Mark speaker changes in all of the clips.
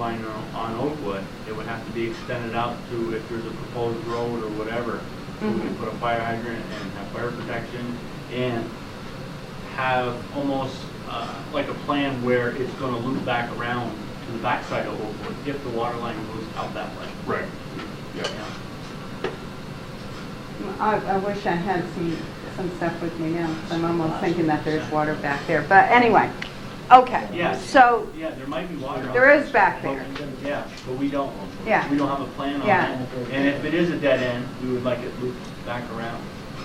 Speaker 1: line on- on Oakwood, it would have to be extended out to if there's a proposed road or whatever. We can
Speaker 2: Mhm.
Speaker 1: put a fire hydrant and have fire protection and have almost uh, like a plan where it's going to loop back around to the backside of Oakwood if the water line goes out that way.
Speaker 3: Right. Yeah.
Speaker 1: Yeah.
Speaker 2: I, I wish I had some, some stuff with me now, 'cause I'm almost thinking that there's water back there, but anyway, okay.
Speaker 1: Yes.
Speaker 2: So,
Speaker 1: Yeah, there might be water. out
Speaker 2: There is back
Speaker 1: but- Yeah, but we don't,
Speaker 2: Yeah.
Speaker 1: we don't have a plan on
Speaker 2: Yeah.
Speaker 1: that. And if it is a dead end, we would like it looped back around.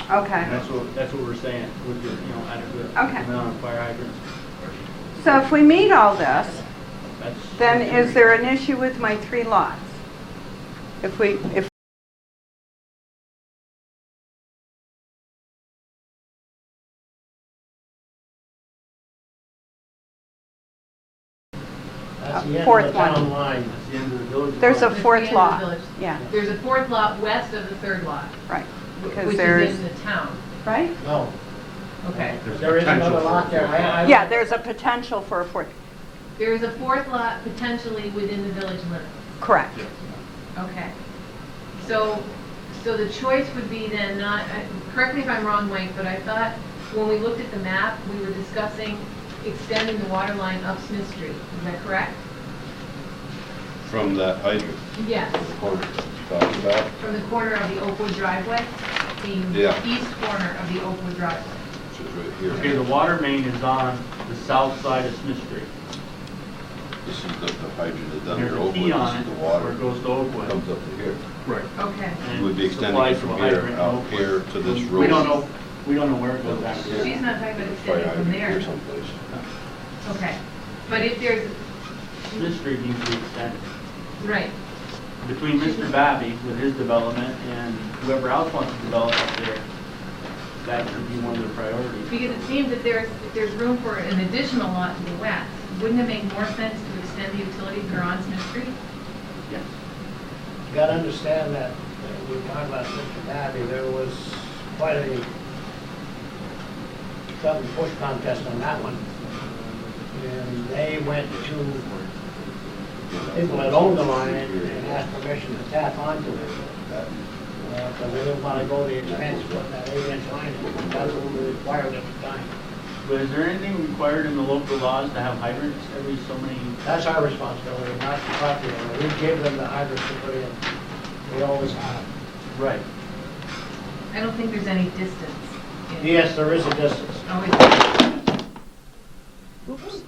Speaker 1: And
Speaker 2: okay,
Speaker 1: that's what, that's what we're saying, with the, you know, adequate
Speaker 2: Okay.
Speaker 1: amount of fire hydrants.
Speaker 2: so if we meet all this,
Speaker 1: That's-
Speaker 2: then is there an issue with my three lots? If we, if,
Speaker 4: That's
Speaker 2: Uh,
Speaker 4: the end
Speaker 2: fourth
Speaker 4: of the
Speaker 2: one.
Speaker 4: town line.
Speaker 1: That's the end of the village.
Speaker 2: there's a
Speaker 1: department.
Speaker 2: fourth
Speaker 5: It's the end
Speaker 2: lot,
Speaker 5: of the village.
Speaker 2: yeah,
Speaker 5: There's a fourth lot west of the third lot,
Speaker 2: right,
Speaker 5: which
Speaker 2: because
Speaker 5: is
Speaker 2: there's,
Speaker 5: in the town.
Speaker 2: right?
Speaker 4: No,
Speaker 5: Okay.
Speaker 3: There's
Speaker 4: there is
Speaker 3: potential
Speaker 4: another
Speaker 3: for
Speaker 4: lot there. I- I-
Speaker 2: Yeah, there's a potential for a fourth,
Speaker 5: There is a fourth lot potentially within the village limits.
Speaker 2: correct,
Speaker 5: Okay. So, so the choice would be then not, I- correct me if I'm wrong, Mike, but I thought when we looked at the map, we were discussing extending the water line up Smith Street. Is that correct?
Speaker 6: From that hydrant
Speaker 5: Yes,
Speaker 6: corner that you talked about?
Speaker 5: from the corner of the Oakwood driveway, the
Speaker 6: Yeah.
Speaker 5: east corner of the Oakwood driveway.
Speaker 6: Which is right
Speaker 1: Okay, the
Speaker 6: here.
Speaker 1: water main is on the south side of Smith Street.
Speaker 6: This is the the hydrant that's
Speaker 1: There's
Speaker 6: under
Speaker 1: a
Speaker 6: Oakwood,
Speaker 1: key on
Speaker 6: this
Speaker 1: it
Speaker 6: is the
Speaker 1: where it
Speaker 6: water.
Speaker 1: goes to Oakwood.
Speaker 6: Comes up to here.
Speaker 3: Right.
Speaker 5: Okay.
Speaker 1: and
Speaker 6: You would be extending
Speaker 1: supplies
Speaker 6: it from
Speaker 1: to a
Speaker 6: here
Speaker 1: hydrant in
Speaker 6: out
Speaker 1: Oakwood.
Speaker 6: here to this
Speaker 1: We
Speaker 6: road.
Speaker 1: don't know, we don't know where it goes back to.
Speaker 5: She's not talking about
Speaker 6: Fire
Speaker 5: extending from
Speaker 6: hydrant here
Speaker 5: there.
Speaker 6: someplace.
Speaker 5: Okay. But if there's,
Speaker 1: Smith Street needs to be extended.
Speaker 5: right,
Speaker 1: Between Mr. Babby with his development and whoever else wants to develop up there, that should be one of the priorities.
Speaker 5: Because it seems that there's, if there's room for an additional lot to the west, wouldn't it make more sense to extend the utility that are on Smith Street?
Speaker 1: Yes.
Speaker 4: You gotta understand that, that we we're talking about Mr. Babby, there was quite a cut and push contest on that one. And they went to people that owned the line and asked permission to tap onto it. Because they didn't wanna go the expense of putting that eight inch line, in. that's what we required at the time.
Speaker 1: But is there anything required in the local laws to have hydrants every so many?
Speaker 4: That's our responsibility, not the property owner. We gave them the hydrants to put in. We always have.
Speaker 1: Right.
Speaker 5: I don't think there's any distance. in-
Speaker 4: Yes, there is a distance.
Speaker 5: Oh, it's-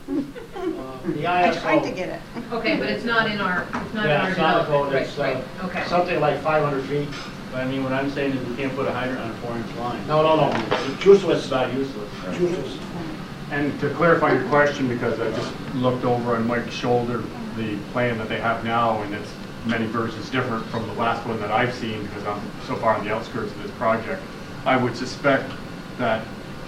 Speaker 4: Uh, The
Speaker 2: I tried to
Speaker 4: ISO,
Speaker 2: get it.
Speaker 5: Okay, but it's not in our, it's not in
Speaker 4: yeah,
Speaker 5: our
Speaker 4: it's not a code,
Speaker 5: development.
Speaker 4: it's
Speaker 5: Right,
Speaker 4: uh,
Speaker 5: right, Okay.
Speaker 4: something like 500 feet.
Speaker 1: But I mean, what I'm saying is we can't put a hydrant on a four-inch line.
Speaker 4: No, no, no, it's
Speaker 1: It's
Speaker 4: useless,
Speaker 1: about useless.
Speaker 4: useless.
Speaker 7: And to clarify your question, because I just looked over on Mike's shoulder, the plan that they have now, and it's many versions different from the last one that I've seen, because I'm so far on the outskirts of this project. I would suspect that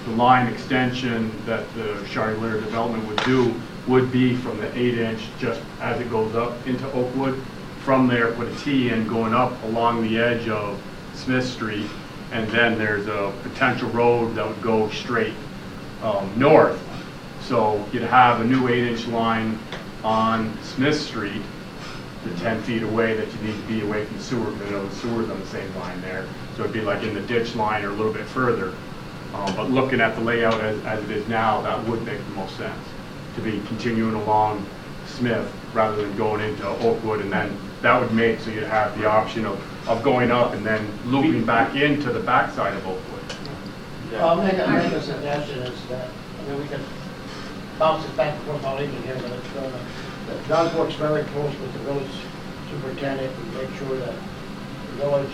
Speaker 7: the line extension that the Charlevoix development would do would be from the eight inch, just as it goes up into Oakwood. From there, put a T in going up along the edge of Smith Street, and then there's a potential road that would go straight um, north. So you'd have a new eight-inch line on Smith Street, the 10 feet away that you need to be away from the sewer, you know, the sewer's on the same line there. So it'd be like in the ditch line or a little bit further. Um, But looking at the layout as, as it is now, that would make the most sense, to be continuing along Smith rather than going into Oakwood. And then that would make, so you'd have the option of, of going up and then looping back into the backside of Oakwood.
Speaker 4: I'll make a, make a suggestion is that, I mean, we can bounce it back and forth all evening here, but it's, uh, that Doug works very close with the village superintendent and make sure that the village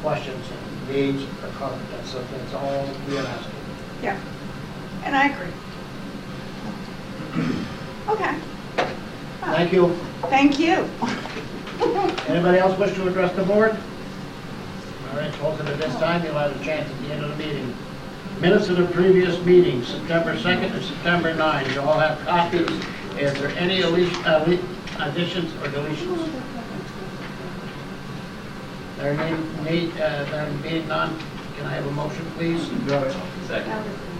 Speaker 4: questions and needs are covered. That's, that's all we are asking.
Speaker 2: Yeah, and I agree. Okay,
Speaker 4: Thank you.
Speaker 2: thank you.
Speaker 4: Anybody else wish to address the board? All right, hold it at this time, you'll have a chance at the end of the meeting. Minutes of the previous meeting, September 2nd and September 9th, you all have copies. Is there any elec- ele- additions or deletions? There may, need, uh, there being none, can I have a motion, please?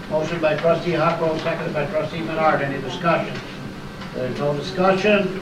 Speaker 4: Motion by trustee Huckrow, seconded by trustee Menard, any discussion? There's no discussion,